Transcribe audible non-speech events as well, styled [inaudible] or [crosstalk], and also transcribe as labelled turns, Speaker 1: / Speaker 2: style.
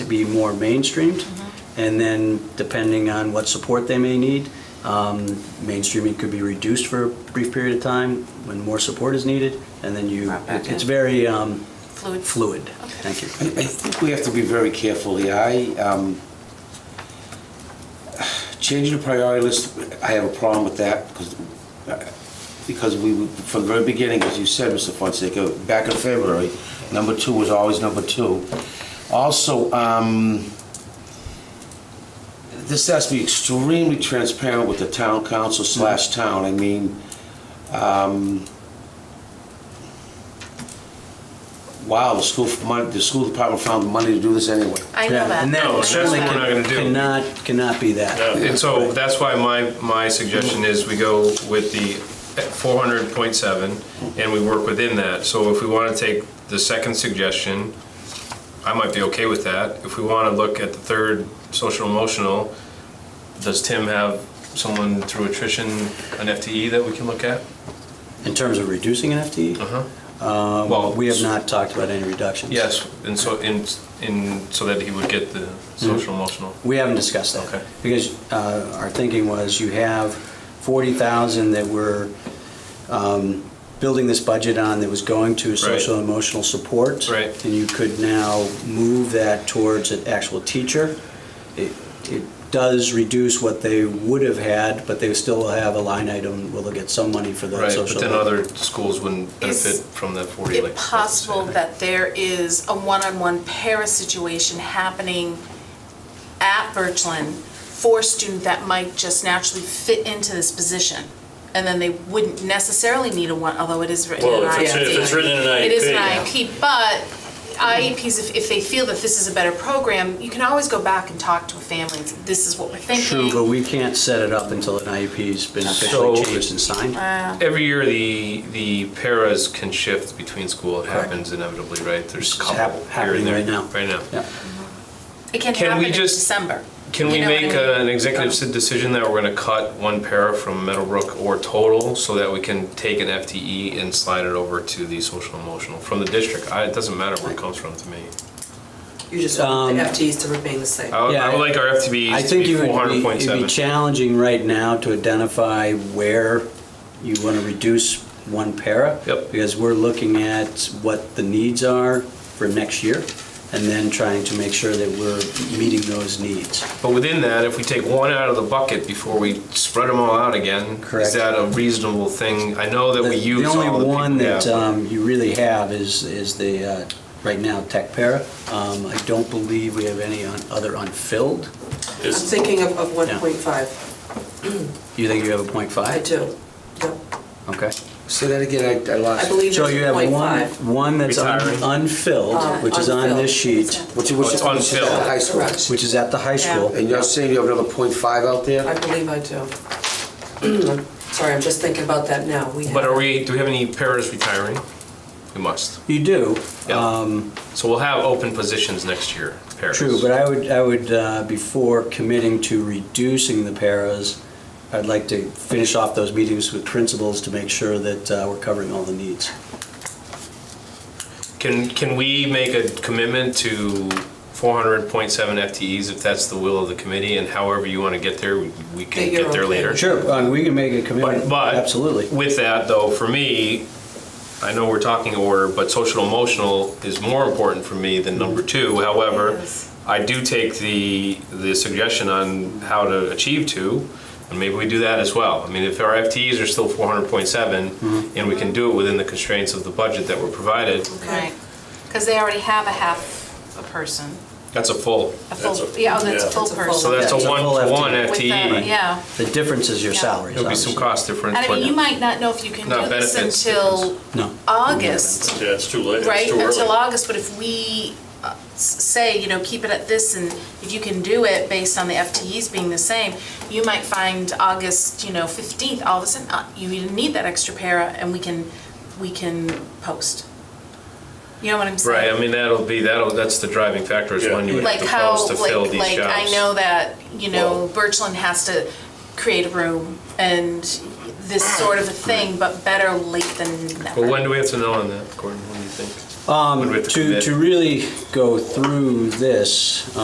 Speaker 1: be more mainstreamed.
Speaker 2: Mm-hmm.
Speaker 1: And then depending on what support they may need, um, mainstreaming could be reduced for a brief period of time when more support is needed. And then you,
Speaker 2: Brought back
Speaker 1: it's
Speaker 2: in.
Speaker 1: very um,
Speaker 2: Fluid.
Speaker 1: fluid. Thank you.
Speaker 3: I I think we have to be very careful here. I, um, changing the priority list, I have a problem with that because, because we, from the very beginning, as you said, Mr. Fonseca, back in February, number two was always number two. Also, um, this has to be extremely transparent with the town council slash town. I mean, um, wow, the school, mon- the school department found the money to do this anyway.
Speaker 2: I know that.
Speaker 1: And
Speaker 2: I
Speaker 1: that
Speaker 2: know
Speaker 1: certainly
Speaker 2: that.
Speaker 4: we're not gonna do.
Speaker 1: cannot, cannot be that.
Speaker 4: And so that's why my, my suggestion is we go with the 400.7 and we work within that. So if we want to take the second suggestion, I might be okay with that. If we want to look at the third, social emotional, does Tim have someone through attrition, an FTE that we can look at?
Speaker 1: In terms of reducing an FTE?
Speaker 4: Uh-huh.
Speaker 1: Um,
Speaker 4: Well,
Speaker 1: We have not talked about any reductions.
Speaker 4: Oh. Yes, and so, in, in, so that he would get the
Speaker 1: Mm-hmm.
Speaker 4: social emotional.
Speaker 1: We haven't discussed that.
Speaker 4: Okay.
Speaker 1: Because uh, our thinking was you have 40,000 that we're um, building this budget on that was going to social and emotional support.
Speaker 4: Right.
Speaker 1: And you could now move that towards an actual teacher. It it does reduce what they would have had, but they still will have a line item, will get some money for the
Speaker 4: Right,
Speaker 1: social.
Speaker 4: but then other schools wouldn't
Speaker 2: Is
Speaker 4: benefit from the 40
Speaker 2: Is
Speaker 4: like.
Speaker 2: it possible that there is a one-on-one para situation happening at Birchland for a student that might just naturally fit into this position? And then they wouldn't necessarily need a one, although it is written in
Speaker 5: Well,
Speaker 2: an
Speaker 5: if
Speaker 2: IEP.
Speaker 5: it's, if it's written in an IEP.
Speaker 2: It is an
Speaker 5: yeah.
Speaker 2: IEP, but IEPs, if, if they feel that this is a better program, you can always go back and talk to a family and say, this is what we're thinking.
Speaker 1: True, but we can't set it up until an IEP's been officially
Speaker 4: So-
Speaker 1: changed and signed.
Speaker 4: Every year, the, the paras can shift between school. It happens inevitably, right? There's a
Speaker 1: It's
Speaker 4: couple
Speaker 1: hap-
Speaker 4: here
Speaker 1: happening
Speaker 4: and there.
Speaker 1: right now.
Speaker 4: Right now.
Speaker 1: Yeah.
Speaker 2: It can
Speaker 4: Can we
Speaker 2: happen in
Speaker 4: just-
Speaker 2: December.
Speaker 4: Can
Speaker 2: You
Speaker 4: we
Speaker 2: know what I
Speaker 4: make
Speaker 2: mean?
Speaker 4: uh, an executive si- decision that we're going to cut one para from Meadowbrook or total so that we can take an FTE and slide it over to the social emotional from the district? I, it doesn't matter where it comes from to me.
Speaker 6: You just want the
Speaker 1: Um,
Speaker 6: FTEs to remain the same.
Speaker 1: Oh.
Speaker 4: I would, I would like our
Speaker 1: I
Speaker 4: FTEs to
Speaker 1: think
Speaker 4: be
Speaker 1: it would be, it'd be
Speaker 4: 400.7.
Speaker 1: challenging right now to identify where you want to reduce one para.
Speaker 4: Yep.
Speaker 1: Because we're looking at what the needs are for next year, and then trying to make sure that we're meeting those needs.
Speaker 4: But within that, if we take one out of the bucket before we spread them all out again,
Speaker 1: Correct.
Speaker 4: is that a reasonable thing? I know that we
Speaker 1: The-
Speaker 4: use all
Speaker 1: The
Speaker 4: the
Speaker 1: only
Speaker 4: people
Speaker 1: one
Speaker 4: we
Speaker 1: that
Speaker 4: have.
Speaker 1: um, you really have is, is the, uh, right now, tech para. Um, I don't believe we have any on- other unfilled.
Speaker 6: I'm
Speaker 5: Is-
Speaker 6: thinking of, of 1.5.
Speaker 1: You think you have a point
Speaker 6: I
Speaker 1: five?
Speaker 6: do. Yep.
Speaker 1: Okay.
Speaker 3: Say that again, I I
Speaker 6: I
Speaker 3: lost. it.
Speaker 6: believe
Speaker 1: So
Speaker 6: there's
Speaker 1: you have one,
Speaker 6: 1.5.
Speaker 1: one that's un-
Speaker 4: Retiring.
Speaker 1: unfilled,
Speaker 6: Um,
Speaker 1: which is on this
Speaker 2: Uh, unfilled.
Speaker 1: sheet,
Speaker 3: What's, what's,
Speaker 4: Oh,
Speaker 3: what's
Speaker 4: it's
Speaker 3: at
Speaker 4: unfilled.
Speaker 3: the high school?
Speaker 6: Correct.
Speaker 1: which is at the high
Speaker 2: Yeah.
Speaker 1: school.
Speaker 3: And you're saying you have another point five out
Speaker 6: I
Speaker 3: there?
Speaker 6: believe I do. [clears throat] I'm Sorry, I'm just thinking about that now. We
Speaker 4: But
Speaker 6: have-
Speaker 4: are we, do we have any paras retiring? We must.
Speaker 1: You do,
Speaker 4: Yeah. So we'll have open positions next year, paras.
Speaker 1: Um, true, but I would, I would, uh, before committing to reducing the paras, I'd like to finish off those meetings with principals to make sure that uh, we're covering all the needs.
Speaker 4: Can, can we make a commitment to 400.7 FTEs if that's the will of the committee? And however you want to get there, we we can
Speaker 6: That you're
Speaker 4: get there
Speaker 6: okay.
Speaker 4: later.
Speaker 1: Sure, uh, we can make a
Speaker 4: But,
Speaker 1: commitment,
Speaker 4: but
Speaker 1: absolutely.
Speaker 4: With that, though, for me, I know we're talking order, but social emotional is more important for me than number
Speaker 2: Mm.
Speaker 4: two.
Speaker 2: It
Speaker 4: However,
Speaker 2: is.
Speaker 4: I do take the the suggestion on how to achieve two, and maybe we do that as well. I mean, if our FTEs are still
Speaker 1: Mm-hmm.
Speaker 4: 400.7, and we can do it within the constraints of the budget that were provided,
Speaker 2: Right, because they already have a half a person,
Speaker 4: that's a full.
Speaker 2: a full,
Speaker 5: That's a-
Speaker 2: yeah, oh, that's a
Speaker 5: yeah.
Speaker 2: full
Speaker 6: That's a full-
Speaker 2: person.
Speaker 4: So that's a
Speaker 1: That's a full E.
Speaker 4: one-to-one
Speaker 1: FTE.
Speaker 2: With the-
Speaker 4: FTE.
Speaker 2: Yeah,
Speaker 1: The difference is your
Speaker 2: Yeah.
Speaker 1: salaries,
Speaker 4: E. There'll be some
Speaker 1: obviously.
Speaker 4: cost difference.
Speaker 2: I mean,
Speaker 4: but-
Speaker 2: you might not know if you can
Speaker 4: No,
Speaker 2: do this
Speaker 4: benefits
Speaker 2: until
Speaker 1: No.
Speaker 2: August,
Speaker 5: Yeah, it's too late, it's
Speaker 2: right,
Speaker 5: too early.
Speaker 2: until August, but if we uh, s- say, you know, keep it at this, and if you can do it based on the FTEs being the same, you might find August, you know, 15th, all of a sudden, uh, you even need that extra para, and we can, we can post. You know what I'm saying?
Speaker 4: Right, I mean, that'll be, that'll, that's the driving factor is
Speaker 5: Yeah.
Speaker 4: when you would have
Speaker 2: like
Speaker 4: to
Speaker 2: how
Speaker 4: post to
Speaker 2: like
Speaker 4: fill these jobs.
Speaker 2: like I know that you know
Speaker 5: Well-
Speaker 2: Birchland has to create a room and this sort of a thing, but better late than never.
Speaker 4: Well, when do we have to know on that, Gordon? When do you think? When do we
Speaker 1: Um,
Speaker 4: have to
Speaker 1: To,
Speaker 4: commit?
Speaker 1: to really go through this,